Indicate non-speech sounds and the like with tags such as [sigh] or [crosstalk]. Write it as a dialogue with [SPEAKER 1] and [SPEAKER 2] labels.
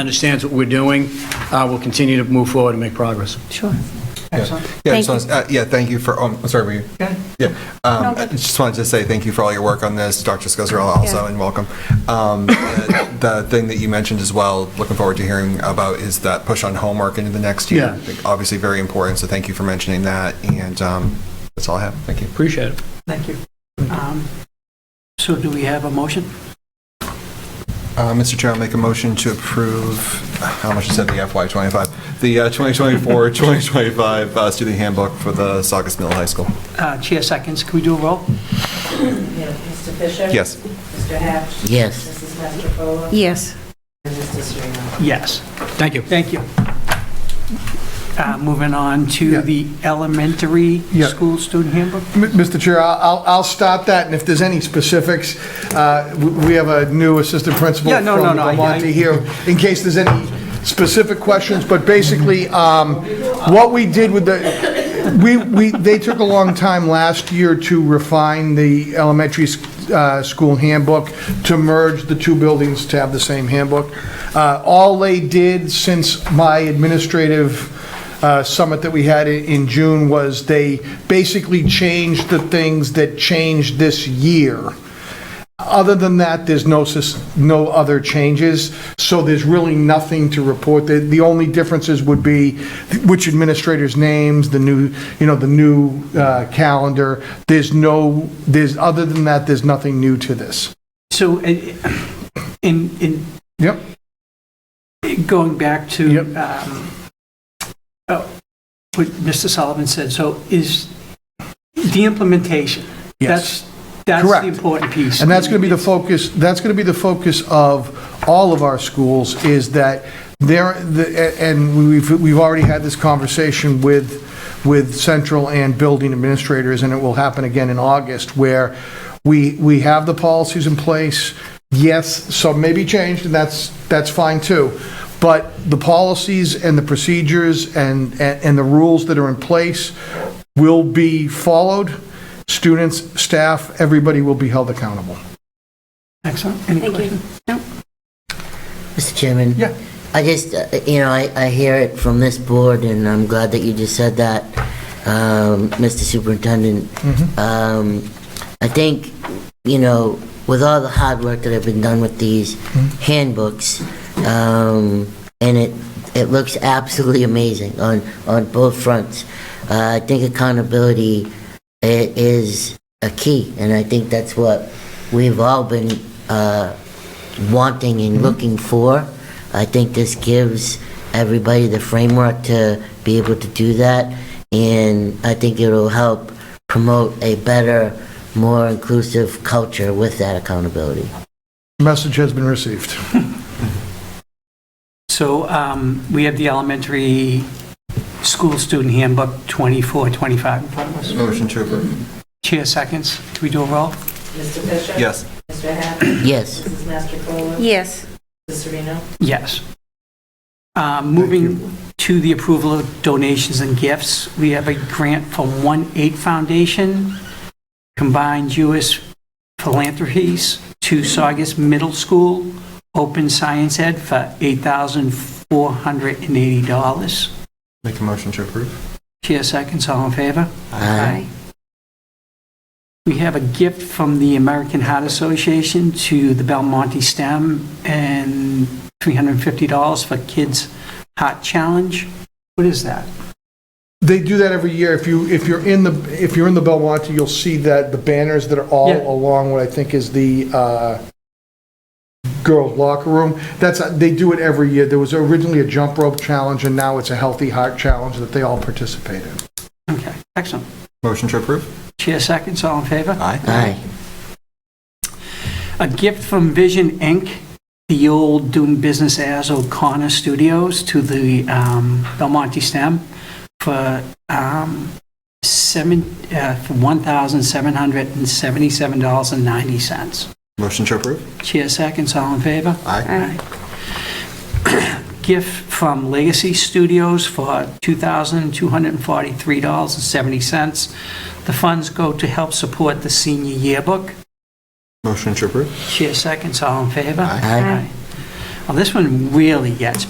[SPEAKER 1] understands what we're doing, uh, we'll continue to move forward and make progress.
[SPEAKER 2] Sure.
[SPEAKER 3] Yeah, I
[SPEAKER 2] Thank
[SPEAKER 3] just wanna- uh, yeah, thank you for, um, sorry, were you? Yeah, um, I just wanted to say thank you for all your work on this, Dr. Scazzarella also,
[SPEAKER 2] Yeah.
[SPEAKER 3] and welcome. Um, The the thing that you mentioned as well, looking forward to hearing about, is that push on homework into the next year.
[SPEAKER 1] Yeah.
[SPEAKER 3] Obviously very important, so thank you for mentioning that, and um, that's all I have, thank you.
[SPEAKER 1] Appreciate it.
[SPEAKER 4] Thank you. Um, So do we have a motion?
[SPEAKER 3] Uh, Mr. Chair, I'll make a motion to approve, how much is that, the FY '25? The uh, [laughs] 2024-2025 uh, student handbook for the Saugus Middle High School.
[SPEAKER 4] Uh, Chair seconds, can we do a roll?
[SPEAKER 5] Yeah, Mr. Fisher?
[SPEAKER 3] Yes.
[SPEAKER 5] Mr. Hatch?
[SPEAKER 6] Yes.
[SPEAKER 5] Mrs. Mastrocola?
[SPEAKER 2] Yes.
[SPEAKER 5] And Mr. Serena?
[SPEAKER 4] Yes,
[SPEAKER 1] Thank you.
[SPEAKER 4] thank you. Uh, Moving on to
[SPEAKER 7] Yeah.
[SPEAKER 4] the elementary
[SPEAKER 7] Yeah.
[SPEAKER 4] school student handbook.
[SPEAKER 7] M- Mr. Chair, I- I'll, I'll stop that, and if there's any specifics, uh, w- we have a new assistant principal
[SPEAKER 4] Yeah,
[SPEAKER 7] from
[SPEAKER 4] no, no, no, I- I-
[SPEAKER 7] Belmonte here, in case there's any specific questions, but basically, um, what we did with the, we, we, they took a long time last year to refine the elementary s- uh, school handbook, to merge the two buildings to have the same handbook. Uh, All they did since my administrative uh, summit that we had i- in June was they basically changed the things that changed this year. Other than that, there's no, sus- no other changes, so there's really nothing to report. The, the only differences would be which administrators' names, the new, you know, the new uh, calendar. There's no, there's, other than that, there's nothing new to this.
[SPEAKER 4] So eh, in, in
[SPEAKER 7] Yep.
[SPEAKER 4] going back to
[SPEAKER 7] Yep.
[SPEAKER 4] um, oh, what Mr. Sullivan said, so is the implementation?
[SPEAKER 7] Yes.
[SPEAKER 4] That's, that's
[SPEAKER 7] Correct.
[SPEAKER 4] the important piece.
[SPEAKER 7] And that's going to be the focus, that's going to be the focus of all of our schools, is that there, the- and we've, we've already had this conversation with, with central and building administrators, and it will happen again in August, where we, we have the policies in place. Yes, some may be changed, and that's, that's fine too. But the policies and the procedures and, and and the rules that are in place will be followed students, staff, everybody will be held accountable.
[SPEAKER 4] Excellent. Any
[SPEAKER 2] Thank you.
[SPEAKER 4] questions?
[SPEAKER 6] Mr. Chairman?
[SPEAKER 7] Yeah.
[SPEAKER 6] I just, uh, you know, I, I hear it from this board, and I'm glad that you just said that, um, Mr. Superintendent. Um, I think, you know, with all the hard work that have been done with these handbooks, um, and it, it looks absolutely amazing on, on both fronts. Uh, I think accountability i- is a key, and I think that's what we've all been, uh, wanting and looking for. I think this gives everybody the framework to be able to do that, and I think it'll help promote a better, more inclusive culture with that accountability.
[SPEAKER 7] Message has been received.
[SPEAKER 4] So um, we have the elementary school student handbook 24, 25 in front of us.
[SPEAKER 3] Motion to approve.
[SPEAKER 4] Chair seconds. Do we do a roll?
[SPEAKER 5] Mr. Fisher?
[SPEAKER 3] Yes.
[SPEAKER 5] Mr. Hatch?
[SPEAKER 6] Yes,
[SPEAKER 5] Mrs. Mastrocola?
[SPEAKER 2] Yes.
[SPEAKER 5] Mrs. Serena?
[SPEAKER 4] Yes. Um, Moving to the approval of donations and gifts, we have a grant from One Eight Foundation, Combined Jewish Philanthropies, to Saugus Middle School, Open Science Ed for $8,480.
[SPEAKER 3] Make a motion to approve.
[SPEAKER 4] Chair seconds, all in favor?
[SPEAKER 6] Aye.
[SPEAKER 4] We have a gift from the American Heart Association to the Belmonte STEM and $350 for Kids Heart Challenge. What is that?
[SPEAKER 7] They do that every year. If you, if you're in the, if you're in the Belmonte, you'll see that the banners that are all
[SPEAKER 4] Yeah.
[SPEAKER 7] along what I think is the uh, girls' locker room. That's, they do it every year. There was originally a jump rope challenge, and now it's a healthy heart challenge that they all participate in.
[SPEAKER 4] Okay, excellent.
[SPEAKER 3] Motion to approve.
[SPEAKER 4] Chair seconds, all in favor?
[SPEAKER 3] Aye.
[SPEAKER 6] aye,
[SPEAKER 4] A gift from Vision Inc., the old doing business as O'Connor Studios, to the um, Belmonte STEM for um, seven uh, for $1,777.90.
[SPEAKER 3] Motion to approve.
[SPEAKER 4] Chair seconds, all in favor?
[SPEAKER 3] Aye.
[SPEAKER 4] gift from Legacy Studios for $2,243.70. The funds go to help support the senior yearbook.
[SPEAKER 3] Motion to approve.
[SPEAKER 4] Chair seconds, all in favor?
[SPEAKER 3] Aye.
[SPEAKER 6] Aye.
[SPEAKER 4] Well, this one really gets